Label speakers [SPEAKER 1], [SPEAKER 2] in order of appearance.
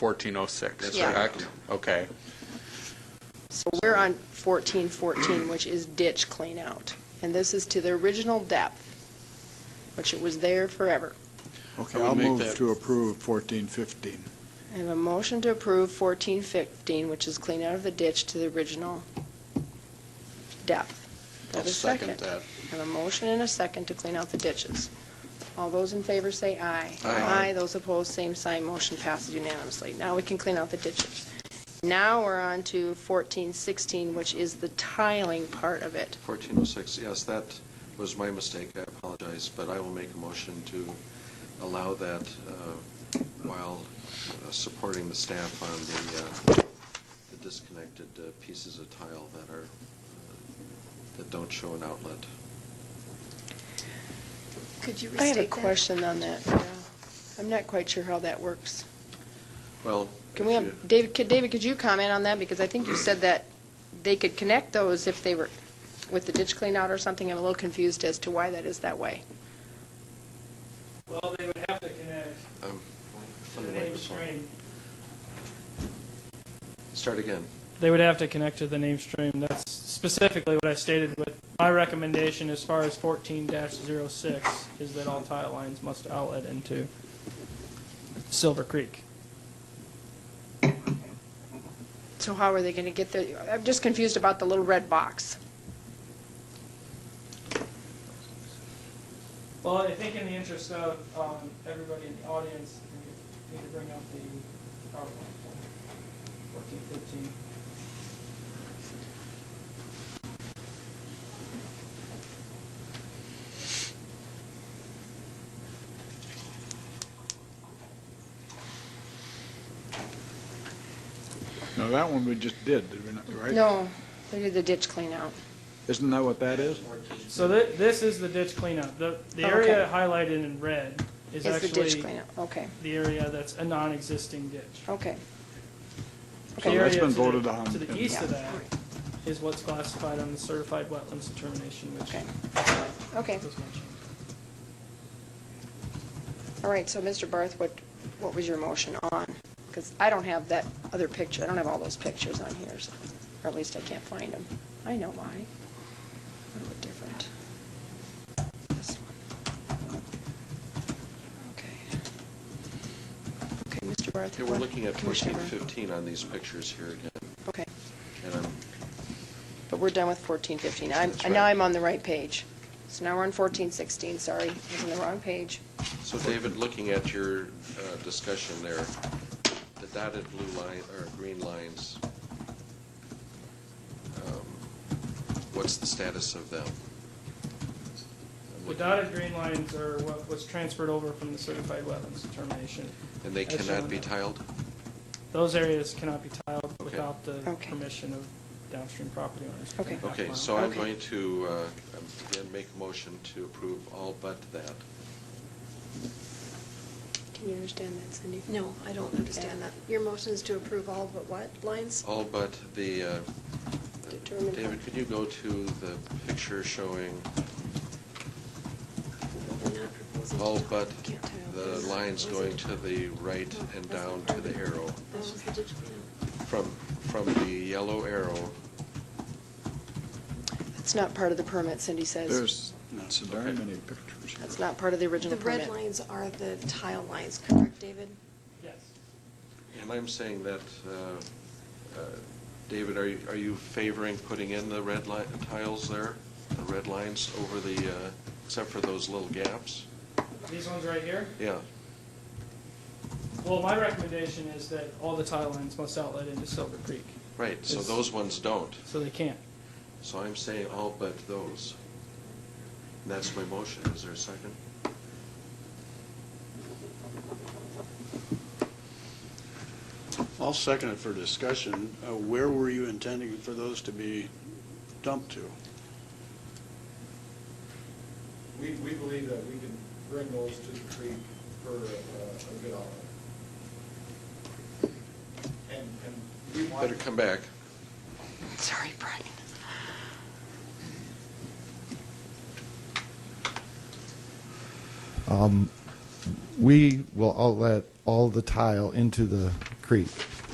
[SPEAKER 1] 1406,
[SPEAKER 2] Yeah.
[SPEAKER 1] correct? Okay.
[SPEAKER 2] So we're on fourteen fourteen, which is ditch clean out, and this is to the original depth, which it was there forever.
[SPEAKER 1] I
[SPEAKER 3] Okay,
[SPEAKER 1] would
[SPEAKER 3] I'll
[SPEAKER 1] make
[SPEAKER 3] move
[SPEAKER 1] that-
[SPEAKER 3] to approve fourteen fifteen.
[SPEAKER 2] I have a motion to approve fourteen fifteen, which is clean out of the ditch to the original depth. Do I
[SPEAKER 1] I'll
[SPEAKER 2] have a
[SPEAKER 1] second that.
[SPEAKER 2] I have a motion and a second to clean out the ditches. All those in favor say aye.
[SPEAKER 1] Aye.
[SPEAKER 2] Those opposed, same sign, motion passes unanimously. Now we can clean out the ditches. Now we're on to fourteen sixteen, which is the tiling part of it.
[SPEAKER 4] 1406, yes, that was my mistake, I apologize, but I will make a motion to allow that uh, while uh, supporting the staff on the uh, the disconnected uh, pieces of tile that are, uh, that don't show an outlet.
[SPEAKER 5] Could you restate
[SPEAKER 2] I
[SPEAKER 5] that?
[SPEAKER 2] have a question on that. yeah. I'm not quite sure how that works.
[SPEAKER 4] Well,
[SPEAKER 2] Can we
[SPEAKER 4] if
[SPEAKER 2] have, David, could, David, could you comment on that? Because I think you said that they could connect those if they were with the ditch cleanout or something. I'm a little confused as to why that is that way.
[SPEAKER 6] Well, they would have to connect
[SPEAKER 4] you- um,
[SPEAKER 6] to the
[SPEAKER 4] let me wipe
[SPEAKER 6] name
[SPEAKER 4] this one.
[SPEAKER 6] stream.
[SPEAKER 4] Start again.
[SPEAKER 6] They would have to connect to the name stream. That's specifically what I stated with my recommendation as far as fourteen 6 is that all tile lines must outlet into Silver Creek.
[SPEAKER 2] So how are they going to get there? I'm just confused about the little red box.
[SPEAKER 6] Well, I think in the interest of, um, everybody in the audience, we need to bring up the PowerPoint. Fourteen fifteen.
[SPEAKER 3] Now, that one we just did, did we not, right?
[SPEAKER 2] No, they did the ditch cleanout.
[SPEAKER 3] Isn't that what that is?
[SPEAKER 6] So thi- this is the ditch cleanup. The, the
[SPEAKER 2] Okay.
[SPEAKER 6] area highlighted in red is
[SPEAKER 2] It's the ditch
[SPEAKER 6] actually
[SPEAKER 2] cleanout. Okay,
[SPEAKER 6] the area that's a non-existing ditch.
[SPEAKER 2] okay.
[SPEAKER 6] The
[SPEAKER 3] So
[SPEAKER 2] Okay.
[SPEAKER 3] that's
[SPEAKER 6] area
[SPEAKER 3] been
[SPEAKER 6] to the-
[SPEAKER 3] voted on.
[SPEAKER 6] To the east of
[SPEAKER 2] Yeah.
[SPEAKER 6] that is what's classified on the certified wetlands determination, which.
[SPEAKER 2] Okay. Okay.
[SPEAKER 6] was mentioned.
[SPEAKER 2] All right, so Mr. Barth, what, what was your motion on? Because I don't have that other picture, I don't have all those pictures on here, so- or at least I can't find them. I know why. They look different. This one. Okay. Okay, Mr. Barth.
[SPEAKER 4] Okay, we're
[SPEAKER 2] what-
[SPEAKER 4] looking at
[SPEAKER 2] Commissioner Barth.
[SPEAKER 4] 1415 on these pictures here again,
[SPEAKER 2] Okay,
[SPEAKER 4] and I'm,
[SPEAKER 2] but we're done with fourteen fifteen. I'm,
[SPEAKER 4] That's
[SPEAKER 2] and now
[SPEAKER 4] right.
[SPEAKER 2] I'm on the right page. So now we're on fourteen sixteen, sorry, I was on the wrong page.
[SPEAKER 4] So David, looking at your uh, discussion there, the dotted blue line, or green lines, um, what's the status of them?
[SPEAKER 6] The dotted green lines are what was transferred over from the certified wetlands determination.
[SPEAKER 4] And they
[SPEAKER 6] as shown
[SPEAKER 4] cannot be
[SPEAKER 6] there.
[SPEAKER 4] tiled?
[SPEAKER 6] Those areas cannot be tiled
[SPEAKER 4] Okay.
[SPEAKER 6] without the
[SPEAKER 2] Okay.
[SPEAKER 6] permission of downstream property owners.
[SPEAKER 2] Okay.
[SPEAKER 4] Okay,
[SPEAKER 6] Wow.
[SPEAKER 4] so I'm
[SPEAKER 2] Okay.
[SPEAKER 4] going to, uh, again, make a motion to approve all but that.
[SPEAKER 2] Can you understand that, Cindy?
[SPEAKER 5] No, I don't understand that. Your motion is to approve all but what lines?
[SPEAKER 4] All but the, uh,
[SPEAKER 2] Determined-
[SPEAKER 4] David, could you go to the picture showing
[SPEAKER 5] We're not proposing to
[SPEAKER 4] all
[SPEAKER 5] tile.
[SPEAKER 4] but
[SPEAKER 5] We can't tile.
[SPEAKER 4] the lines going to the right and down to the arrow?
[SPEAKER 5] That was the ditch cleanup.
[SPEAKER 4] From, from the yellow arrow,
[SPEAKER 2] It's not part of the permit, Cindy says.
[SPEAKER 3] There's not so very
[SPEAKER 4] Okay.
[SPEAKER 3] many pictures.
[SPEAKER 2] That's not part of the original
[SPEAKER 5] The
[SPEAKER 2] permit.
[SPEAKER 5] red lines are the tile lines, correct, David?
[SPEAKER 6] Yes.
[SPEAKER 4] and I'm saying that, uh, uh, David, are you, are you favoring putting in the red line, tiles there? The red lines over the, uh, except for those little gaps?
[SPEAKER 6] These ones right here?
[SPEAKER 4] Yeah,
[SPEAKER 6] Well, my recommendation is that all the tile lines must outlet into Silver Creek,
[SPEAKER 4] right, so
[SPEAKER 6] It's-
[SPEAKER 4] those ones don't.
[SPEAKER 6] so they can't.
[SPEAKER 4] So I'm saying all but those. And that's my motion. Is there a second?
[SPEAKER 7] I'll second it for discussion. Uh, Where were you intending for those to be dumped to?
[SPEAKER 8] We, we believe that we can bring those to the creek for uh, a good outcome. And, and we want.
[SPEAKER 4] Better come back.
[SPEAKER 2] Sorry, Brian.
[SPEAKER 9] We will outlet all the tile into the creek.